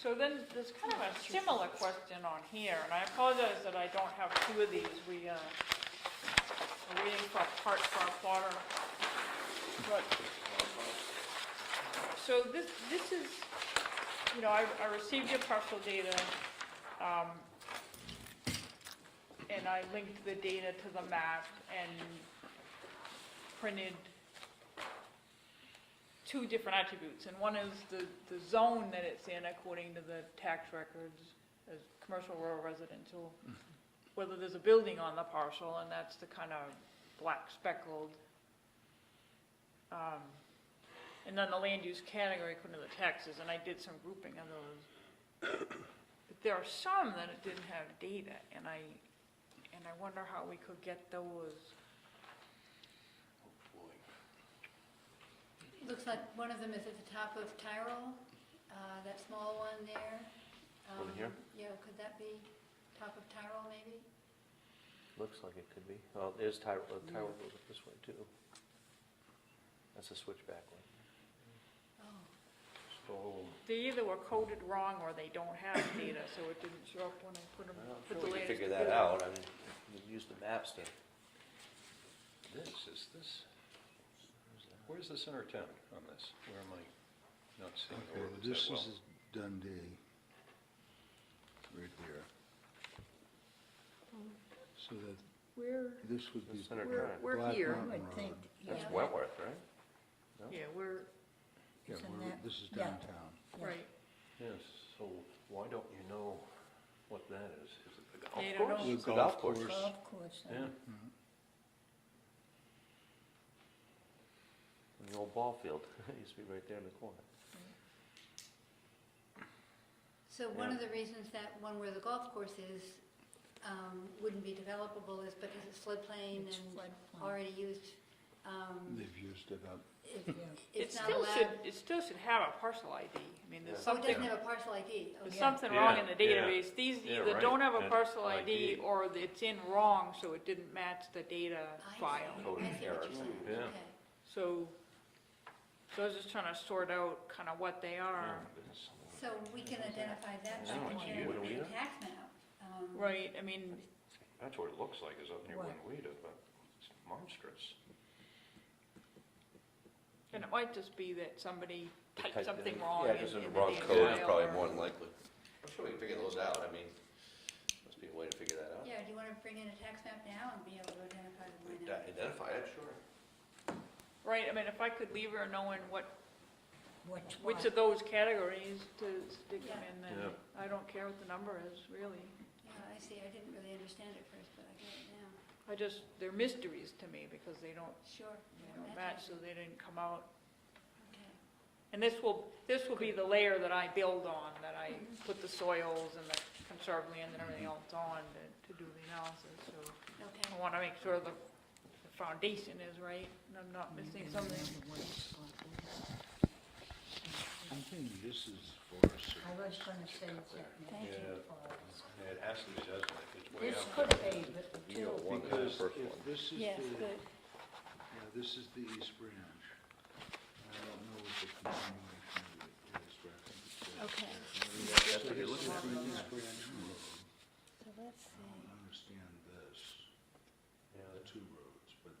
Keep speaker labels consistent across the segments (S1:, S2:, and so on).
S1: So then, there's kind of a similar question on here, and I apologize that I don't have two of these. We, uh, are waiting for a part for our plotter. But, so this, this is, you know, I, I received your parcel data, um, and I linked the data to the map and printed two different attributes, and one is the, the zone that it's in according to the tax records as commercial, rural, residential, whether there's a building on the parcel, and that's the kind of black speckled. um, And then the land use category according to the taxes, and I did some grouping of those. But there are some that it didn't have data, and I, and I wonder how we could get those.
S2: Looks like one of them is at the top of Tyrol, uh, that small one there.
S3: Over
S2: Um,
S3: here?
S2: Yeah, could that be top of Tyrol maybe?
S3: Looks like it could be. Oh, there's Tyrell, Tyrell goes up this way too. That's a switchback one.
S2: Oh,
S4: So,
S1: They either were coded wrong or they don't have data, so it didn't show up when I put them,
S3: Well, I'm
S1: put the
S3: sure we can
S1: latest.
S3: figure that
S1: together.
S3: out. I mean, you use the maps to,
S4: this, is this, where's the center of town on this? Where am I not seeing the
S5: Okay, well,
S4: ordinance
S5: this
S4: that well?
S5: is Dundee, right here. So that,
S6: We're,
S5: this would
S3: the
S5: be
S3: center
S6: we're,
S3: turn.
S6: we're
S5: Black
S6: here,
S5: Mountain
S6: I think.
S5: Road.
S6: yeah.
S3: That's Wentworth, right?
S1: Yeah, we're,
S5: Yeah,
S6: Isn't
S5: we're-
S6: that-
S5: this is
S6: yeah.
S5: downtown.
S6: Yeah.
S1: right,
S4: Yes, so why don't you know what that is? Is it the golf
S1: They don't
S4: course?
S1: know.
S5: The
S3: It's a golf course.
S6: Golf course. uh,
S4: Yeah,
S5: Mm-hmm.
S3: And The old ball field, it used to be right there in the corner.
S2: So one
S3: Yeah.
S2: of the reasons that one where the golf course is um, wouldn't be developable is because it's floodplain
S6: It's
S2: and
S6: floodplain.
S2: already used. um,
S5: They've used it up.
S6: Mm-hmm.
S2: it-
S6: Yeah.
S1: it
S2: It's not
S1: still should,
S2: allowed.
S1: it still should have a parcel ID. I mean, there's
S3: Yeah.
S2: Oh, it
S1: something,
S2: doesn't have a parcel ID.
S1: there's
S2: Okay.
S1: something wrong in
S4: Yeah,
S1: the
S4: yeah.
S1: database. These
S4: Yeah,
S1: either
S4: right,
S1: don't have a
S4: and
S1: parcel
S4: ID.
S1: ID or it's in wrong, so it didn't match the data
S2: I see.
S1: file.
S2: I see
S3: Coded
S2: what you're
S3: error.
S2: saying.
S4: Yeah.
S2: Okay.
S1: So, so I was just trying to sort out kind of what they
S4: yeah,
S1: are.
S3: Hmm.
S4: it's-
S2: So we can identify that
S3: Yeah,
S2: by
S4: it's
S2: comparing
S4: you.
S2: it to the tax map. um,
S1: Right, I mean,
S4: That's what it looks like, is up near
S6: What?
S4: Winneweeda, but it's monstrous.
S1: and it might just be that somebody typed
S3: Typed
S1: something
S3: in-
S1: wrong
S3: Yeah,
S1: in in
S3: just
S1: the
S3: in the
S1: damn
S3: wrong code, it's
S1: file
S3: probably
S1: or-
S3: more than likely. I'm sure we can figure those out, I mean, must be a way to figure that out.
S2: Yeah, do you want to bring in a tax map now and be able to identify the
S3: We
S2: line
S3: can
S2: item?
S3: Identify it, sure.
S1: Right, I mean, if I could leave her knowing what,
S6: Which one?
S1: which of those categories to stick them in,
S4: Yeah.
S1: then I don't care what the number is, really.
S2: Yeah, I see, I didn't really understand it first, but I get it now.
S1: I just, they're mysteries to me because they don't,
S2: Sure.
S1: they don't match, so they didn't come out.
S2: Okay.
S1: And this will, this will be the layer that I build on, that I put the soils and the conserved land and everything else on to, to do the analysis, so.
S2: Okay,
S1: I wanna make sure the, the foundation is right and I'm not missing
S7: Mm-hmm.
S1: something.
S5: I'm thinking this is Forest
S6: I was
S5: Service.
S6: gonna say that, thank
S4: Yeah.
S6: you for,
S4: It actually doesn't, it's way
S6: this
S4: out
S6: could
S4: there.
S6: be, but
S3: You know,
S6: two,
S3: one, the
S5: Because
S3: first one.
S5: if this is the,
S6: yes,
S5: yeah,
S6: good.
S5: this is the East Branch. I don't know what the continuation of it is, but I think it's. uh,
S6: Okay,
S5: So this is the East Branch Road.
S6: so let's
S5: I
S6: see.
S5: don't understand this,
S3: Yeah,
S5: the two roads, but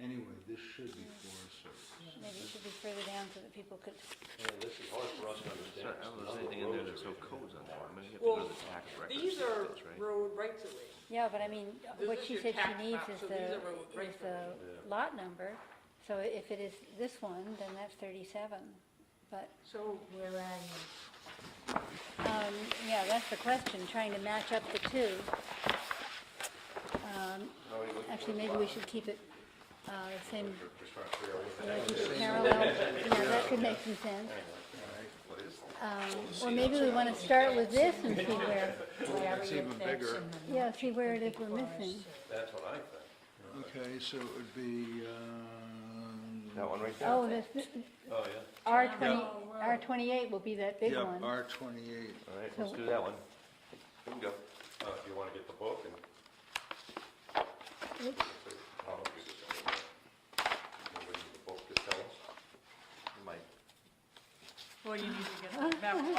S5: anyway, this should be Forest Service.
S2: maybe it should be further down so that people could,
S3: yeah, this is hard for us to understand.
S7: Sorry, I don't know if there's anything in there that's no codes on that, I'm gonna have to
S1: Well,
S7: go to the tax records.
S1: These are
S7: that's right.
S1: road rights of way.
S2: yeah, but I mean,
S1: This
S2: what
S1: is
S2: she
S1: your
S2: said
S1: tax
S2: she needs
S1: map,
S2: is
S1: so these
S2: the,
S1: are road
S2: is
S1: records.
S2: the lot number. So if it is this one, then that's thirty-seven, but,
S1: So
S6: Where are you?
S2: um, yeah, that's the question, trying to match up the two. Um,
S3: How are you looking
S2: Actually,
S3: for
S2: maybe
S3: a
S2: we
S3: plot?
S2: should keep it, uh, the same,
S3: Just trying to figure out what the heck it is.
S2: relationship parallel, yeah, that could make some sense.
S3: What is it?
S2: Um, Or maybe we want to start with this and see where,
S6: Where
S4: It's
S6: are you?
S4: even
S6: That's
S4: bigger.
S6: in the
S2: yeah,
S6: north.
S2: see where it
S6: Could
S2: is
S6: be
S2: we're
S6: forest
S2: missing.
S6: service.
S4: That's what I think.
S5: Okay, so it would be, um.
S3: That one right there?
S2: Oh, this,
S4: Oh, yeah.
S2: R twenty,
S6: Oh,
S2: R twenty-eight will be that big
S5: Yep,
S2: one.
S5: R twenty-eight.
S3: All right, let's do that one.
S4: Bingo. Uh, if you wanna get the book and. I'll give it to you. You'll read the book to tell us.
S3: You might
S1: Well, you need to get a map